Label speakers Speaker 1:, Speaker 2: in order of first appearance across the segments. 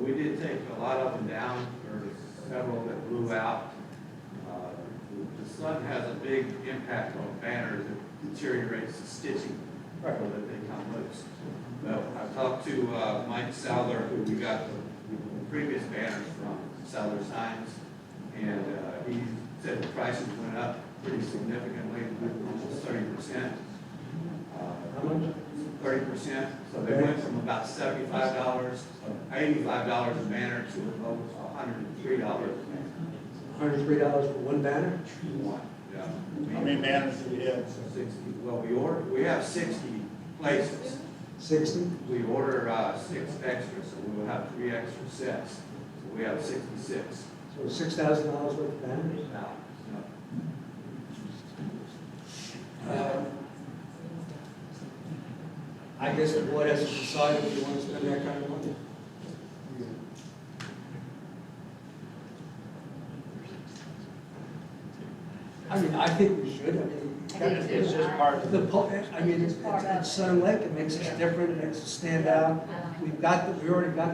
Speaker 1: a lot up and down, there were several that blew out. Uh, the- The sun has a big impact on banners, it deteriorates the stitching, so
Speaker 2: Right.
Speaker 1: that they come loose. But I've talked to uh, Mike Souter, who we got the previous banners from, Souter Signs, and uh, he said the prices went up pretty significantly, almost thirty percent. Uh,
Speaker 2: How much?
Speaker 1: Thirty percent, so they went from about seventy-five dollars, eighty-five dollars a banner to about hundred and three dollars a banner.
Speaker 2: Hundred and three dollars for one banner?
Speaker 1: One, yeah.
Speaker 3: How many banners do we have?
Speaker 1: Sixty, well, we order, we have sixty places.
Speaker 2: Sixty?
Speaker 1: We order, uh, six extras, so we will have three extra sets. So we have sixty-six
Speaker 2: So six thousand dollars worth of banners?
Speaker 1: now.
Speaker 2: Uh, I guess the board has to decide if you want to spend that kind of money. I mean, I think we should, I mean.
Speaker 4: I do too.
Speaker 3: It's just part of,
Speaker 2: The, po- I mean, it's, it's it's Sun Lake, it makes us different, it makes us stand out.
Speaker 5: Um,
Speaker 2: We've got, the we already got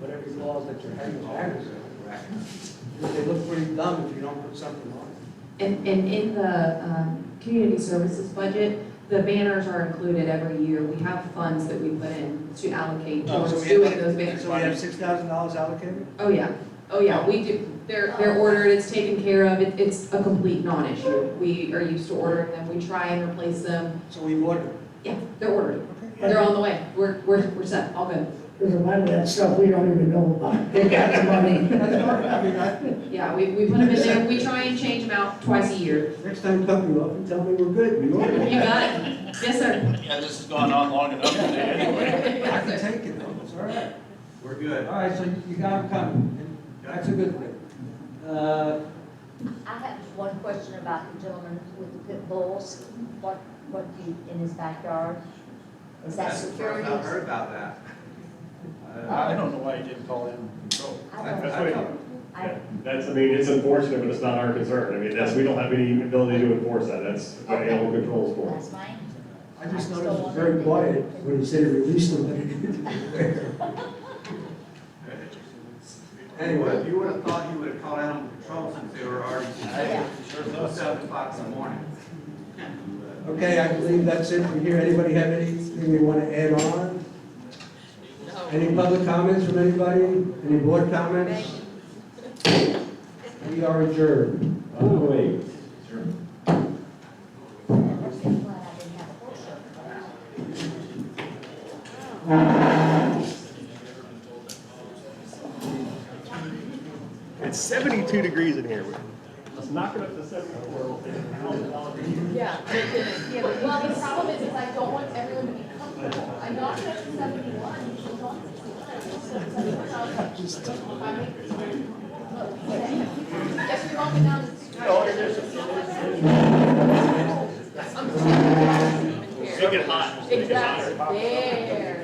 Speaker 2: whatever laws that you're hanging banners on. They look pretty dumb if you don't put something on it.
Speaker 4: And, and in the, um, community services budget, the banners are included every year. We have funds that we put in to allocate
Speaker 2: Oh,
Speaker 4: towards
Speaker 2: so we
Speaker 4: doing
Speaker 2: have-
Speaker 4: those banners.
Speaker 2: So we have six thousand dollars allocated?
Speaker 4: Oh, yeah, oh, yeah, we do, they're, they're ordered, it's taken care of, It- it's a complete non-issue. We are used to ordering them, we try and replace them,
Speaker 2: So we ordered.
Speaker 4: yeah, they're ordered,
Speaker 2: Okay.
Speaker 4: they're on the way, we're, we're, we're set, all good.
Speaker 6: There's a lot of that stuff we don't even know about. They got the money.
Speaker 2: That's all right. I mean, I,
Speaker 4: Yeah, we, we put them in there, we try and change them out twice a year.
Speaker 2: next time come you up and tell me we're good, we
Speaker 4: You
Speaker 2: ordered.
Speaker 4: got it, yes, sir.
Speaker 3: yeah, this has gone on long enough today anyway.
Speaker 2: I
Speaker 4: Yes,
Speaker 2: can
Speaker 4: sir.
Speaker 2: take it though, it's all right.
Speaker 1: We're
Speaker 2: All
Speaker 1: good.
Speaker 2: right, so you got them coming, that's a good thing. Uh,
Speaker 5: I have just one question about the gentleman with the pit bulls. What, what do you, in his backyard? Is that
Speaker 1: That's the
Speaker 5: security?
Speaker 1: first I've heard about that. Uh,
Speaker 3: I don't know why you didn't call in control.
Speaker 5: I don't,
Speaker 1: I- I don't-
Speaker 5: I,
Speaker 7: That's, I mean, it's unfortunate, but it's not our concern. I mean, that's, we don't have any ability to enforce that. That's what animal control is for.
Speaker 5: that's mine.
Speaker 2: I just noticed it was very quiet when he said release them, but he didn't.
Speaker 1: Anyway, you would have thought you would have called animal control since they were already
Speaker 3: I sure
Speaker 1: Well,
Speaker 3: thought so.
Speaker 1: seven o'clock in the morning.
Speaker 2: Okay, I believe that's it from here. Anybody have anything they want to add on? Any public comments from anybody? Any board comments? We are adjourned.
Speaker 7: Oh, wait. Sure.
Speaker 5: I'm glad I didn't have a horse show.
Speaker 8: It's 72 degrees in here.
Speaker 7: Let's knock it up to seven or
Speaker 4: Yeah, but it's- yeah, but- well, the problem is, is I don't want everyone to be comfortable. I knocked it up to seventy-one, she was on sixty-nine, so seventy-one, I was like, just took my mic. Yes, we knocked it down to sixty-nine. I'm just-
Speaker 8: Make it hot.
Speaker 4: Exactly, there.